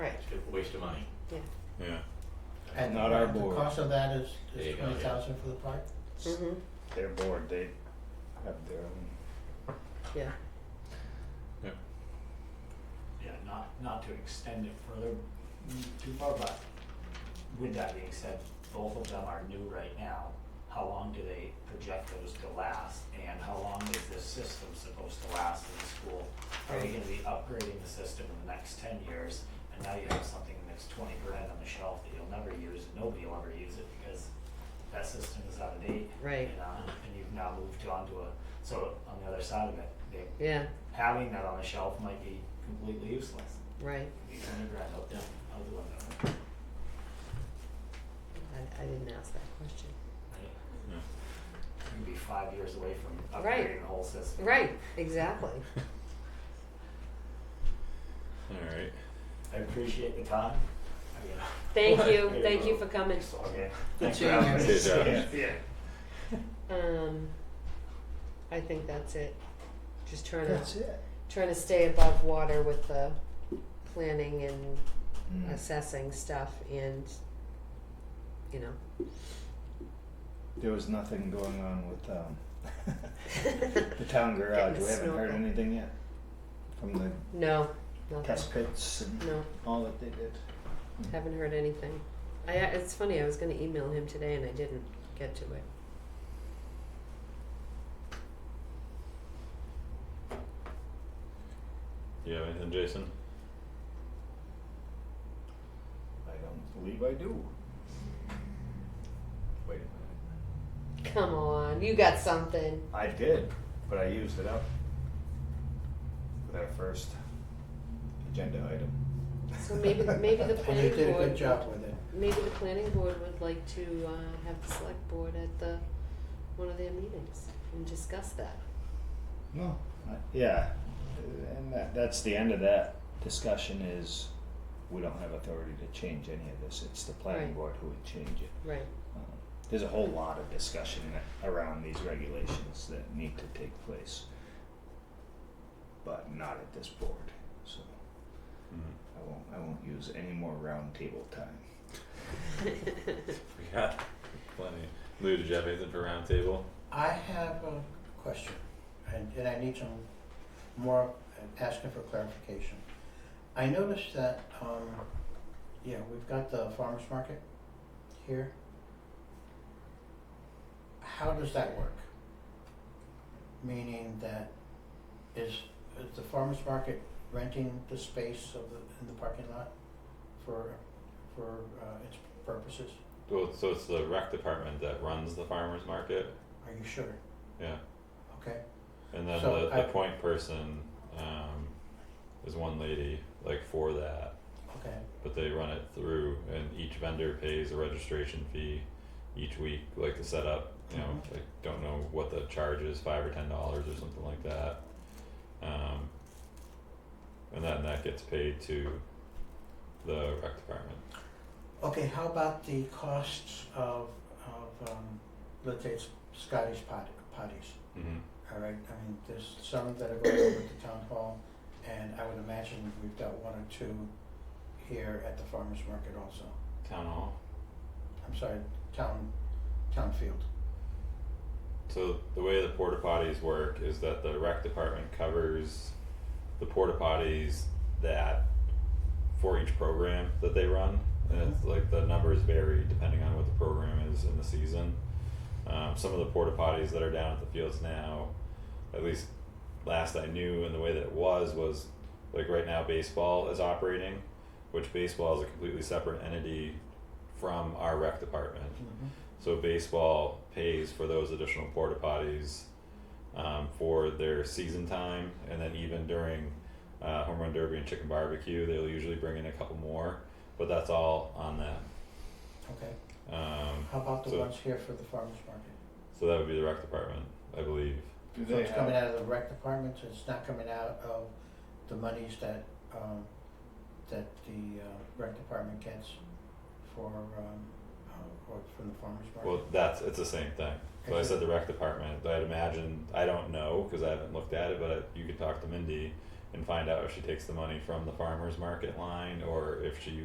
waste of money. yeah. And Not our board. The cost of that is, There you is go, yeah. twenty thousand for the park? Mm-hmm, Their board, they have their own. yeah. Yeah, not, not to extend it further mm, too far, but with that being said, both of them are new right now. How long do they project those to last, and how long is this system supposed to last in the school? Are they gonna be upgrading the system in the next ten years, and now you have something that's twenty grand on the shelf that you'll never use, and nobody will ever use it because that system is out of date. Right. And, uh, and you've now moved on to a, so on the other side of it, they, Yeah, having that on the shelf might be completely useless. right. You kind of grind out the, out the window. I, I didn't ask that question. Right? yeah. You'd be five years away from Right. upgrading the whole system. Right, exactly. All right. I appreciate the time. I mean, Thank you, There you thank you go. for coming. Okay. Good Thanks for seeing you. having me. Good job. Yeah. Yeah. Um, I think that's it. Just trying to, That's it. trying to stay above water with the planning and Mm. assessing stuff and, you know. There was nothing going on with um, the town garage. Getting We haven't heard snorkel. anything yet from the No, nothing. test pits and No, all that they did. haven't heard anything. I, uh, it's funny, I was gonna email him today and I didn't get to it. You have anything, Jason? I don't believe I do. Wait a minute. Come on, you got something. I did, but I used it up with our first agenda item. So maybe, maybe the And they planning did a board good job with it. Maybe the planning board would like to uh, have the select board at the, one of their meetings and discuss that. No. Yeah, and that, that's the end of that discussion is we don't have authority to change any of this. It's the planning Right. board who would change it. Right. Um, There's a whole lot of discussion that- around these regulations that need to take place, but not at this board, so Mm. I won't, I won't use any more roundtable time. We got plenty. Lou, did you have anything for roundtable? I have a question, and, and I need some more, I'm asking for clarification. I noticed that, um, yeah, we've got the farmer's market here. How does that work? Meaning that is, is the farmer's market renting the space of the, in the parking lot for, for, uh, its purposes? Well, it's- so it's the rec department that runs the farmers market. Are you sure? Yeah, Okay, and then So the, the I- point person um, is one lady like for that, okay, but they run it through, and each vendor pays a registration fee each week, like to set up. You know, I don't know what the charge is, five or ten dollars or something like that. Um, and then that gets paid to the rec department. Okay, how about the costs of, of, um, let's say it's Scottish pot, potties, Mm-hmm. all right? I mean, there's some that are going over at the town hall, and I would imagine we've got one or two here at the farmer's market also. Town hall. I'm sorry, town, town field. So the way the porta potties work is that the rec department covers the porta potties that for each program that they run, and it's like the numbers vary depending on what the program is in the season. Um, some of the porta potties that are down at the fields now, at least last I knew, and the way that it was was like right now baseball is operating, which baseball is a completely separate entity from our rec department. So baseball pays for those additional porta potties um, for their season time, and then even during uh, home run derby and chicken barbecue, they'll usually bring in a couple more. But that's all on them. Okay, Um, how about the So- ones here for the farmer's market? so that would be the rec department, I believe. Do So it's coming out of the rec department, so it's not coming out of the monies that, um, that the, uh, rec department gets for, um, uh, or from the farmer's market? Well, that's it's the same thing. So I said the rec department. I'd imagine I don't know because I haven't looked at it, but I, you could talk to Mindy and find out if she takes the money from the farmers market line or if she